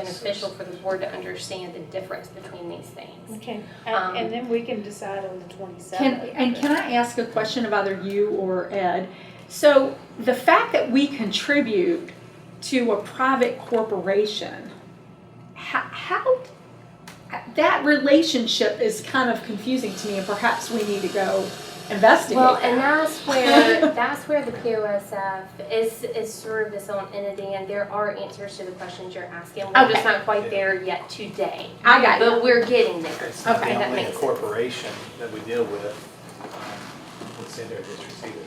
beneficial for the board to understand the difference between these things. Okay, Um, and and then we can decide on the Can, twenty-seventh. and can I ask a question of either you or Ed? So the fact that we contribute to a private corporation, how, how that relationship is kind of confusing to me, and perhaps we need to go investigate. Well, and that. that's where, that's where the POSF is, is sort of its own entity, and there are answers to the questions you're asking. We're just not quite there yet today, I got you. but we're getting there. It's not Okay, the that only makes sense. corporation that we deal with, um, would send their districts either.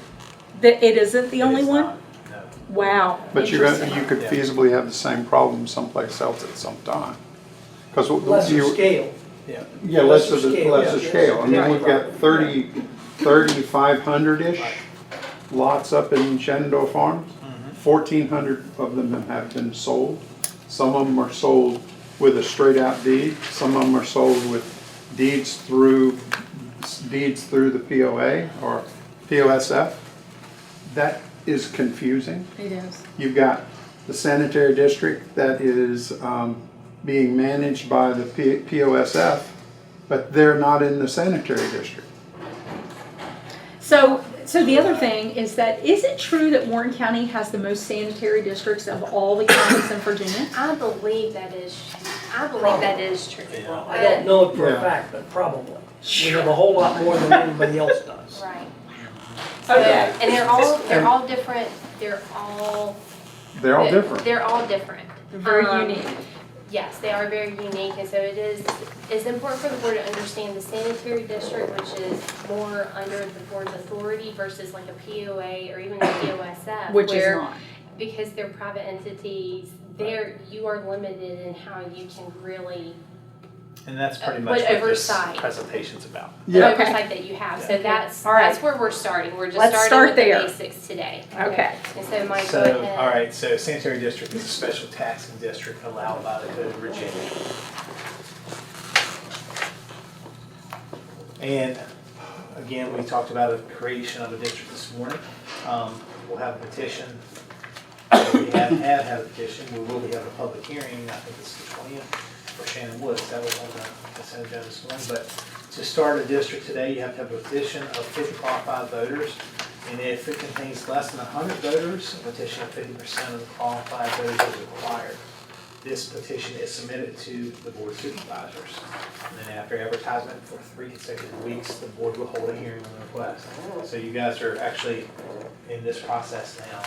That it isn't the It only is one. not, No. Wow. But you're gonna, Interesting. you could feasibly have the same problem someplace else at some time. Because lesser you, scale. Yeah. yeah, lesser, lesser the- scale, lesser yeah. scale. I mean, Right. we've got thirty, thirty-five hundred-ish lots up in Shenandoah Farms. Mm-hmm. Fourteen hundred of them have been sold. Some of them are sold with a straight-out deed. Some of them are sold with deeds through, deeds through the POA or POSF. That is confusing. It is. You've got the sanitary district that is um, being managed by the P- POSF, but they're not in the sanitary district. So, so the other thing is that, is it true that Warren County has the most sanitary districts of all the counties in Virginia? I believe that is, I believe that is true. Yeah. I don't know it for Yeah. a fact, but probably. We have a whole lot more than anybody else does. Right. Okay. And they're all, they're all different, they're all. They're all different. They're all different. Very Um, unique. Yes, they are very unique, and so it is, it's important for the board to understand the sanitary district, which is more under the board's authority versus like a POA or even a POSF. Which is where- not. Because they're private entities, there, you are limited in how you can really, And that's Uh, pretty but much what this oversight. presentation's about. the Yeah. oversight that you have. So Okay. that's, All right. that's where we're starting. We're just Let's start starting there. with the basics today. Okay. And so Mike, go So, ahead. all right, so sanitary district is a special taxing district allowed by the Code of Virginia. And again, we talked about the creation of a district this morning. Um, We'll have a petition. We have, have had a petition, we will be having a public hearing, I think it's the twentieth, for Shannon Woods, that was on the consent agenda this morning. But to start a district today, you have to have a petition of fifty qualified voters. And if it contains less than hundred voters, a petition of fifty percent of the qualified voters is required. This petition is submitted to the board of supervisors. And then after advertisement for three consecutive weeks, the board will hold a hearing on the request. So you guys are actually in this process now.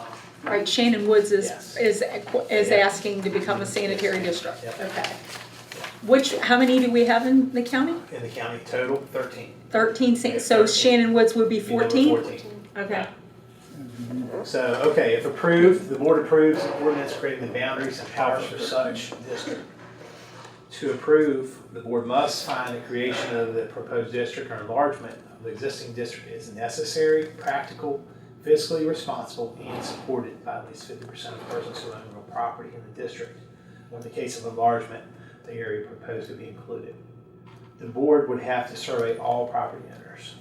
Um, Right, Shannon Woods is, Yes. is, is Yeah. asking to become a sanitary district. Yep. Okay. Which, how many do we have in the county? In the county total, thirteen. Thirteen, san- Yeah, so 13. Shannon Woods would be Be number fourteen? Fourteen. Okay. So, okay, if approved, the board approves an ordinance creating the boundaries and powers for such district. To approve, the board must find the creation of the proposed district or enlargement of the existing district is necessary, practical, fiscally responsible, and supported by at least fifty percent of persons who own real property in the district. Or in the case of enlargement, the area proposed to be included. The board would have to survey all property owners.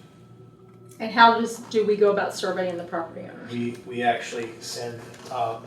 And how does, do we go about surveying the property owner? We, we actually send, um,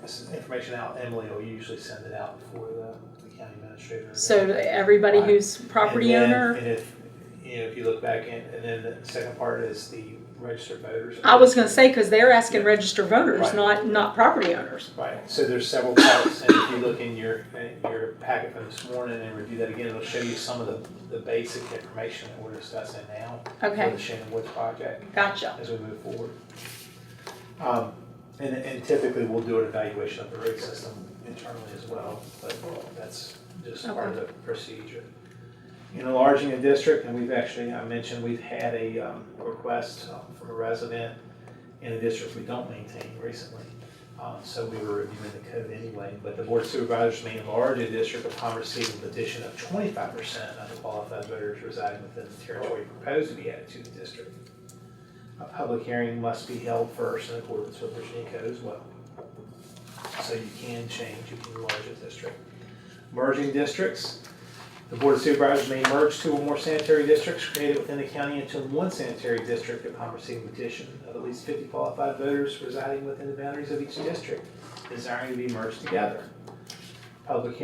this is information out, Emily will usually send it out for the, the county administrator. So that everybody who's property And then- owner? And if, you know, if you look back in, and then the second part is the registered voters. I was gonna say, cause they're asking registered voters, Right. not, not property owners. Right, so there's several parts, and if you look in your, in your packet from this morning and review that again, it'll show you some of the, the basic information that we're discussing now for Okay, the Shannon Woods project. gotcha. as we move forward. Um, And, and typically, we'll do an evaluation of the rate system internally as well, but that's just part of the procedure. In enlarging a district, and we've actually, I mentioned, we've had a um, request uh, from a resident in a district we don't maintain recently. Um, So we were reviewing the code anyway, but the board of supervisors may enlarge a district upon receiving a petition of twenty-five percent of the qualified voters residing within the territory proposed to be added to the district. A public hearing must be held first in accordance with Virginia Code as well. So you can change, you can enlarge a district. Merging districts, the Board of Supervisors may merge two or more sanitary districts created within the county into one sanitary district upon receiving petition of at least fifty qualified voters residing within the boundaries of each district desiring to be merged together. public